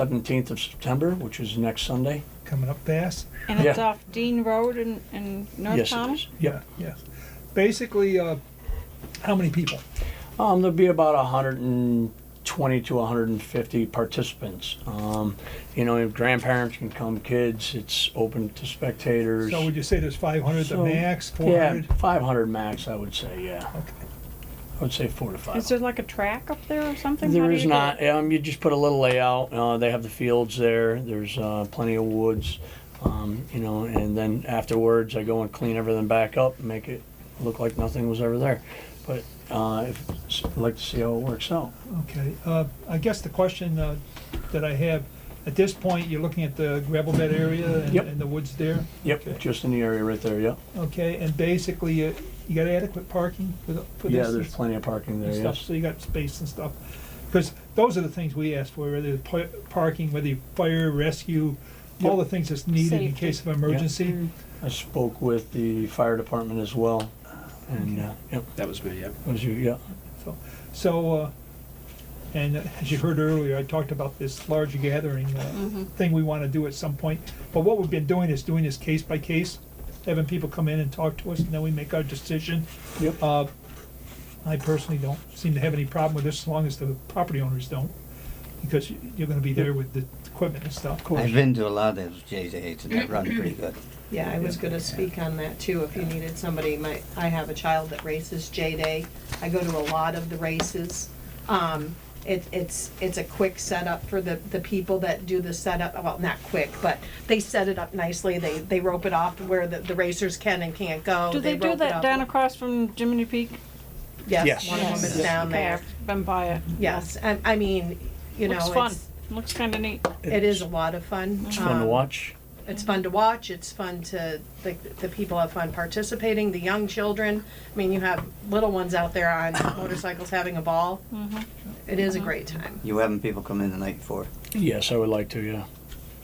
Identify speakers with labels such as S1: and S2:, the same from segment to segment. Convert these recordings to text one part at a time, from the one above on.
S1: seventeenth of September, which is next Sunday.
S2: coming up fast.
S3: And it's
S1: Yeah.
S3: off Dean Road in, in North
S1: Yes, it
S3: Pownell?
S1: is. Yep.
S2: Yeah, Yes. Basically, uh, how many people?
S1: Um, there'll be about hundred and twenty to hundred and fifty participants. Um, you know, grandparents can come, kids, it's open to spectators.
S2: So would you say there's 500 the
S1: So,
S2: max,
S1: Yeah,
S2: 400?
S1: five hundred max, I would say, yeah.
S2: Okay.
S1: I would say four to five.
S3: Is there like a track up there or something? How
S1: There
S3: do
S1: is
S3: you get-
S1: not. Um, you just put a little layout. Uh, they have the fields there. There's uh, plenty of woods, um, you know. And then afterwards, I go and clean everything back up, and make it look like nothing was ever there. But uh, if, I'd like to see how it works out.
S2: Okay, uh, I guess the question uh, that I have, at this point, you're looking at the gravel bed area and-
S1: Yep.
S2: and the woods there?
S1: Yep,
S2: Okay.
S1: just in the area right there. Yep.
S2: Okay, and basically, uh, you got adequate parking for the- for this?
S1: yeah, there's plenty of parking there.
S2: and stuff,
S1: Yes.
S2: So you got space and stuff? Because those are the things we ask for, whether it's pa- parking, whether you fire, rescue, all the things that's needed in
S3: Safety.
S2: case of emergency.
S1: I spoke with the fire department as well, and uh, yep,
S4: That was me, yeah.
S1: was you? Yeah.
S2: So- So, uh, and as you heard earlier, I talked about this large gathering uh,
S3: Mm-hmm.
S5: Mm-hmm.
S2: thing we want to do at some point. But what we've been doing is doing this case by case, having people come in and talk to us, and then we make our decision.
S1: Yep.
S2: Uh, I personally don't seem to have any problem with this, as long as the property owners don't, because you- you're going to be there with the equipment and stuff.
S5: I've been to a lot of those JJ's and they
S1: Mm-hmm.
S5: run pretty good.
S6: Yeah, I was gonna speak on that too, if you needed somebody, my, I have a child that races J-Day, I go to a lot of the races. Um, it, it's, it's a quick setup for the, the people that do the setup, well, not quick, but they set it up nicely, they, they rope it off where the, the racers can and can't go.
S3: Do Oh, they do
S6: rope it
S3: that
S6: up.
S3: down across from Jiminy Peak?
S1: Yes.
S6: Yes, one of them is
S3: Yes.
S6: down
S3: Okay,
S6: there,
S3: I've Been by it.
S6: yes, I, I mean, you know,
S3: Looks fun.
S6: it's,
S3: Looks kinda neat.
S6: it is a lot of fun.
S1: It's fun to
S6: Um,
S1: watch.
S6: it's fun to watch it's fun to the, the people have fun participating the young children i mean you have little ones out there on motorcycles having a ball
S3: Mm-hmm.
S6: It is a great time
S5: You having people come in the night before?
S1: Yes, I would like to. Yeah.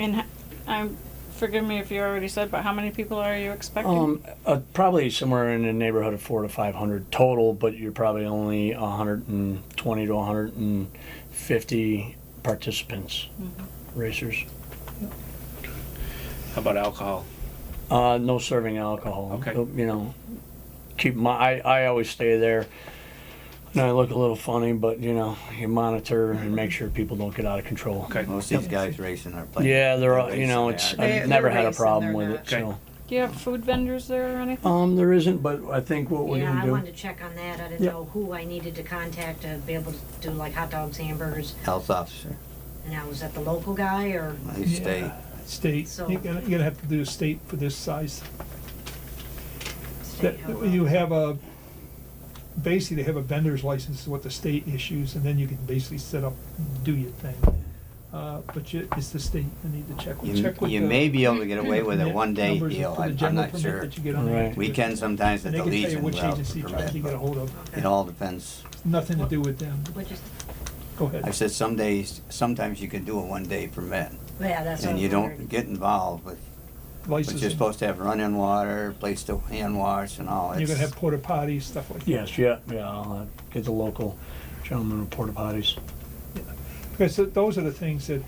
S3: And h- I'm, forgive me if you already said, but how many people are you expecting?
S1: Um, uh, probably somewhere in the neighborhood of four to five hundred total, but you're probably only a hundred and twenty to hundred and fifty participants,
S7: Mm-hmm.
S1: racers.
S4: How about alcohol?
S1: Uh, no serving alcohol.
S4: Okay.
S1: So, You know, keep my. I, I always stay there. And I look a little funny, but you know, you monitor and make sure people don't get out of control.
S4: Okay.
S5: Most of these guys racing are playing.
S1: Yeah, they're all, you
S5: racing,
S1: know,
S5: they
S1: it's
S5: are.
S6: They're-
S1: I've never had a
S6: racing,
S1: problem with
S6: they're
S1: it.
S6: not-
S4: Okay.
S1: So,
S3: Do you have food vendors there or anything?
S1: um, there isn't, but I think what we
S7: Yeah,
S1: can
S7: I
S1: do.
S7: wanted to check on that. I didn't
S1: Yep.
S7: know who I needed to contact to be able to do like hot dogs, hamburgers.
S5: Health officer,
S7: Now, was that the local guy or?
S5: they stay.
S2: State,
S7: So-
S2: you're gonna, you're gonna have to do a state for this size.
S7: state?
S2: That,
S7: Oh, well.
S2: you have a, basically they have a vendor's license, is what the state issues, and then you can basically set up, and do your thing. Uh, but you, it's the state, I need to check, with-
S5: You,
S2: check with the.
S5: you may be able to get away with a
S2: permit
S5: one-day
S2: numbers
S5: deal,
S2: for the
S5: I- I'm
S2: general
S5: not
S2: permit
S5: sure.
S2: that you get on the-
S1: Right.
S5: Weekend sometimes at
S2: And they
S5: the
S2: can tell you
S5: Legion
S2: which
S5: without
S2: agency
S5: the
S2: tried to get a
S5: permit.
S2: hold of,
S5: It all depends.
S2: nothing to do with them,
S7: Which is-
S2: go ahead.
S5: I said some days, sometimes you can do a one-day permit
S7: Yeah, that's what I
S5: and
S7: was
S5: you don't
S7: wondering.
S5: get involved with, but
S2: Licensing.
S5: you're supposed to have running water, place to hand wash and all.
S2: You're gonna
S5: It's-
S2: have porta potties, stuff like that.
S1: Yes, yeah, yeah, I'll uh, get the local gentleman with porta potties.
S2: Because th- those are the things that,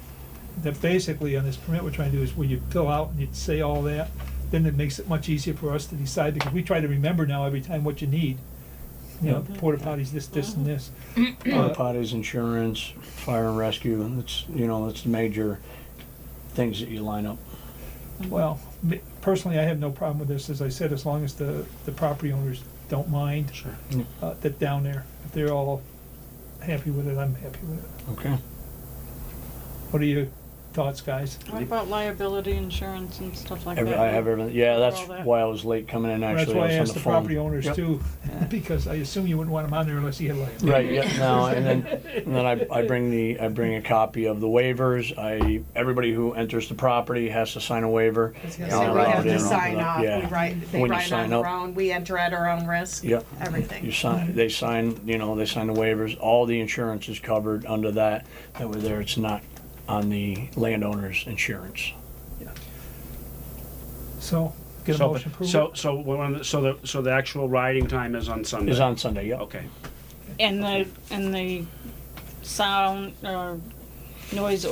S2: that basically on this permit we're trying to do is when you fill out and you say all that, then it makes it much easier for us to decide, because we try to remember now every time what you need. You know, porta potties, this, this, and this.
S1: Porta
S2: Uh,
S1: potties, insurance, fire and rescue, and it's, you know, it's major things that you line up.
S2: Well, me- personally, I have no problem with this, as I said, as long as the, the property owners don't mind
S4: Sure.
S2: uh, that down there. If they're all happy with it, I'm happy with it.
S1: Okay.
S2: What are your thoughts, guys?
S3: What about liability insurance and stuff like that?
S1: Every, I have everything, yeah, that's
S3: All that.
S1: why I was late coming in
S2: Well, That's
S1: actually,
S2: why I
S1: I was
S2: asked
S1: on
S2: the
S1: the
S2: property
S1: phone.
S2: owners
S1: Yep.
S2: too, because I assume you wouldn't want them on there unless you had liability.
S1: Right, yeah, no, and then, and then I, I bring the, I bring a copy of the waivers, I, everybody who enters the property has to sign a waiver.
S6: I was gonna
S5: Yeah,
S6: say,
S5: I'll
S6: we
S5: write
S6: have
S5: it
S6: to
S5: in on
S6: sign
S1: that,
S6: off, we
S1: yeah.
S6: write, they
S1: When you
S6: write
S1: sign
S6: on their
S1: up.
S6: own, we enter at our own risk,
S1: Yep. You
S6: everything.
S1: sign, they sign, you know, they sign the waivers, all the insurance is covered under that, that way there, it's not on the landowner's insurance.
S2: So, get a
S4: So,
S2: motion approved?
S4: so, so, we're on the- so the, so the actual riding time is on Sunday?
S1: Is on Sunday, yep.
S4: Okay,
S3: And the, and the sound or noise